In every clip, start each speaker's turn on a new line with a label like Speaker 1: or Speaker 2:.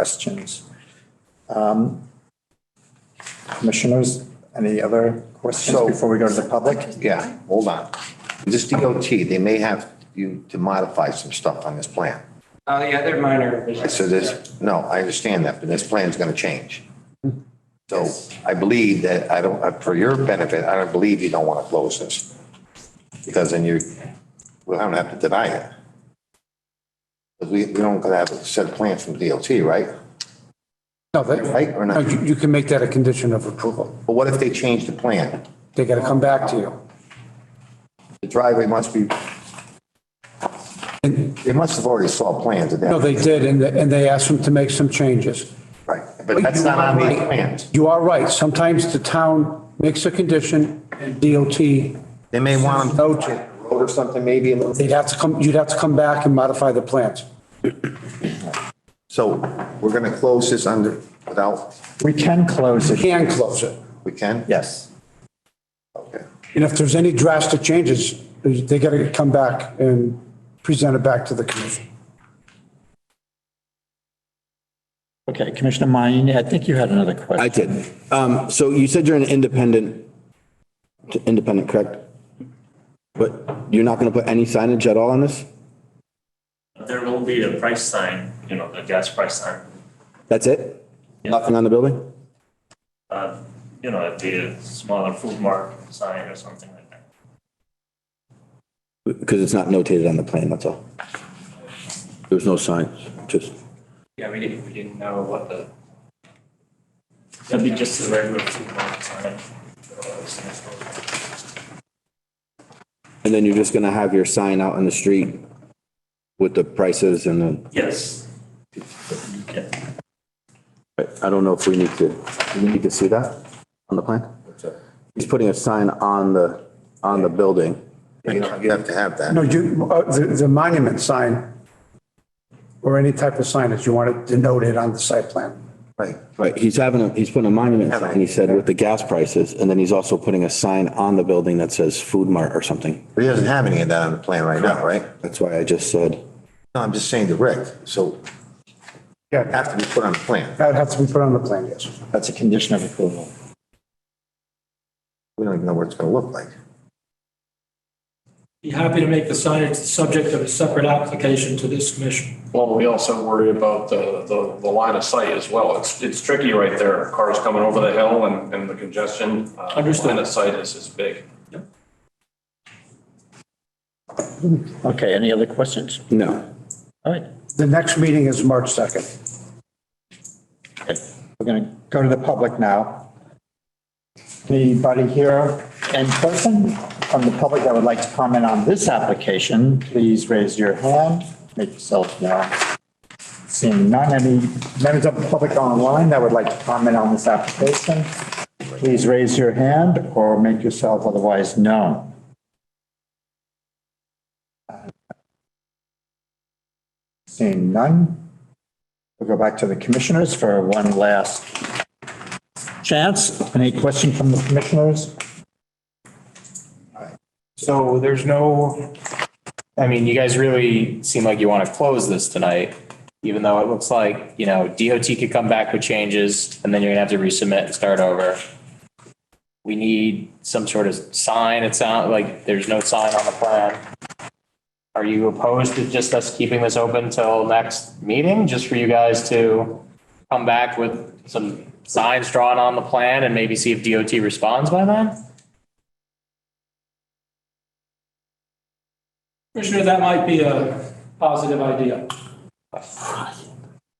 Speaker 1: questions. Um, Commissioners, any other questions
Speaker 2: So-
Speaker 1: before we go to the public?
Speaker 2: Yeah, hold on. This DOT, they may have you to modify some stuff on this plan.
Speaker 3: Oh, yeah, they're minor.
Speaker 2: I
Speaker 3: revisions.
Speaker 2: said this, no, I understand that, but this plan's gonna change. So I believe that, I don't, uh, for your benefit, I don't believe you don't wanna close this. Because then you, well, I don't have to deny it. But we, we don't gonna have a set plan from DOT, right?
Speaker 4: No, that,
Speaker 2: Right, or
Speaker 4: no,
Speaker 2: not?
Speaker 4: you you can make that a condition of approval.
Speaker 2: But what if they change the plan?
Speaker 4: They got to come back to you.
Speaker 2: The driveway must be,
Speaker 4: And,
Speaker 2: they must have already saw plans of that.
Speaker 4: no, they did, and, and they asked them to make some changes.
Speaker 2: Right, but that's not on these plans.
Speaker 4: You are right. Sometimes the town makes a condition and DOT,
Speaker 2: They may want them.
Speaker 4: No to.
Speaker 2: Road or something, maybe. a little-
Speaker 4: they'd have to come, you'd have to come back and modify the plans.
Speaker 2: So we're going to close this under, without,
Speaker 1: We can close it.
Speaker 4: Can close it.
Speaker 2: we can?
Speaker 1: Yes.
Speaker 2: Okay.
Speaker 4: And if there's any drastic changes, they got to come back and present it back to the commission.
Speaker 1: Okay, Commissioner Mayne, I think you had another question.
Speaker 5: I did. Um, so you said you're an independent, independent, correct? But you're not gonna put any signage at all on this?
Speaker 6: There will be a price sign, you know, the gas price sign.
Speaker 5: That's it? Nothing on the building?
Speaker 6: Uh, You know, it'd be a smaller food mart sign or something like that.
Speaker 5: Because it's not notated on the plan, that's all. There's no signs, just,
Speaker 6: Yeah, we didn't, we didn't know what the. That'd be just a regular food mart sign.
Speaker 5: and then you're just gonna have your sign out on the street with the prices and the,
Speaker 6: Yes. Yeah.
Speaker 5: But I don't know if we need to, do we need to see that on the plan? He's putting a sign on the, on the building.
Speaker 2: You know, you have to have
Speaker 4: No,
Speaker 2: that.
Speaker 4: you, uh, the, the monument sign or any type of signage, you want it denoted on the site plan.
Speaker 2: Right.
Speaker 5: Right, he's having, a he's putting a monument sign, he said, with the gas prices, and then he's also putting a sign on the building that says Food Mart or something.
Speaker 2: But he doesn't have any of that on the plan right now, right?
Speaker 5: That's why I just said,
Speaker 2: No, I'm just saying to Rick, so it
Speaker 4: Yeah,
Speaker 2: have to be put on the plan.
Speaker 4: that'd have to be put on the plan, yes.
Speaker 1: That's a condition of approval.
Speaker 2: We don't even know what it's going to look like.
Speaker 7: Be happy to make the signage the subject of a separate application to this commission.
Speaker 8: Well, we also worry about the, the, the line of sight as well. It's, it's tricky right there. Cars coming over the hill and, and the congestion. uh,
Speaker 7: Understood.
Speaker 8: Line of sight is, is big.
Speaker 9: Okay, any other questions?
Speaker 5: no.
Speaker 9: All right.
Speaker 4: The next meeting is March 2nd.
Speaker 1: We're going to go to the public now. Anybody here in person from the public that would like to comment on this application, please raise your hand, make yourself known. Seeing none, any members of the public online that would like to comment on this application, please raise your hand or make yourself otherwise known. Seeing none, we'll go back to the commissioners for one last chance. Any question from the commissioners?
Speaker 10: So there's no, I mean, you guys really seem like you want to close this tonight, even though it looks like, you know, DOT could come back with changes and then you're gonna have to resubmit and start over. We need some sort of sign. It sounds like there's no sign on the plan. Are you opposed to just us keeping this open till next meeting, just for you guys to come back with some signs drawn on the plan and maybe see if DOT responds by then?
Speaker 7: Commissioner, that might be a positive idea.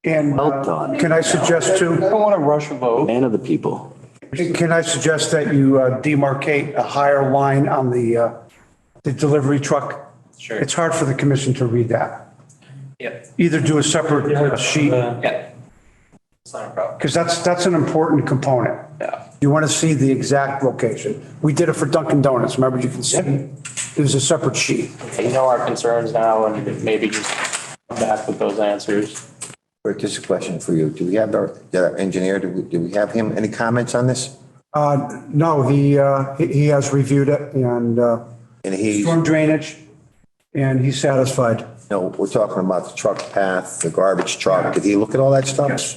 Speaker 4: And
Speaker 5: Well
Speaker 4: uh,
Speaker 5: done.
Speaker 4: can I suggest too,
Speaker 10: don't want to rush a vote.
Speaker 5: Man of the people.
Speaker 4: can I suggest that you uh, demarcate a higher line on the, uh, the delivery truck?
Speaker 10: Sure.
Speaker 4: It's hard for the commission to read that.
Speaker 10: Yeah. uh,
Speaker 4: Either do a separate sheet,
Speaker 10: Yeah. It's not a problem.
Speaker 4: because that's, that's an important component.
Speaker 10: Yeah.
Speaker 4: You want to see the exact location. We did it for Dunkin' Donuts, remember, you can see, it was a separate sheet.
Speaker 10: You know our concerns now and maybe just come back with those answers.
Speaker 2: Rick, just a question for you. Do we have our, did our engineer, do we, do we have him? Any comments on this?
Speaker 4: Uh, No, he, uh, he he has reviewed it and uh,
Speaker 2: And he,
Speaker 4: storm drainage, and he's satisfied.
Speaker 2: No, we're talking about the truck path, the garbage truck. Did he look at all that stuff?
Speaker 4: Yes.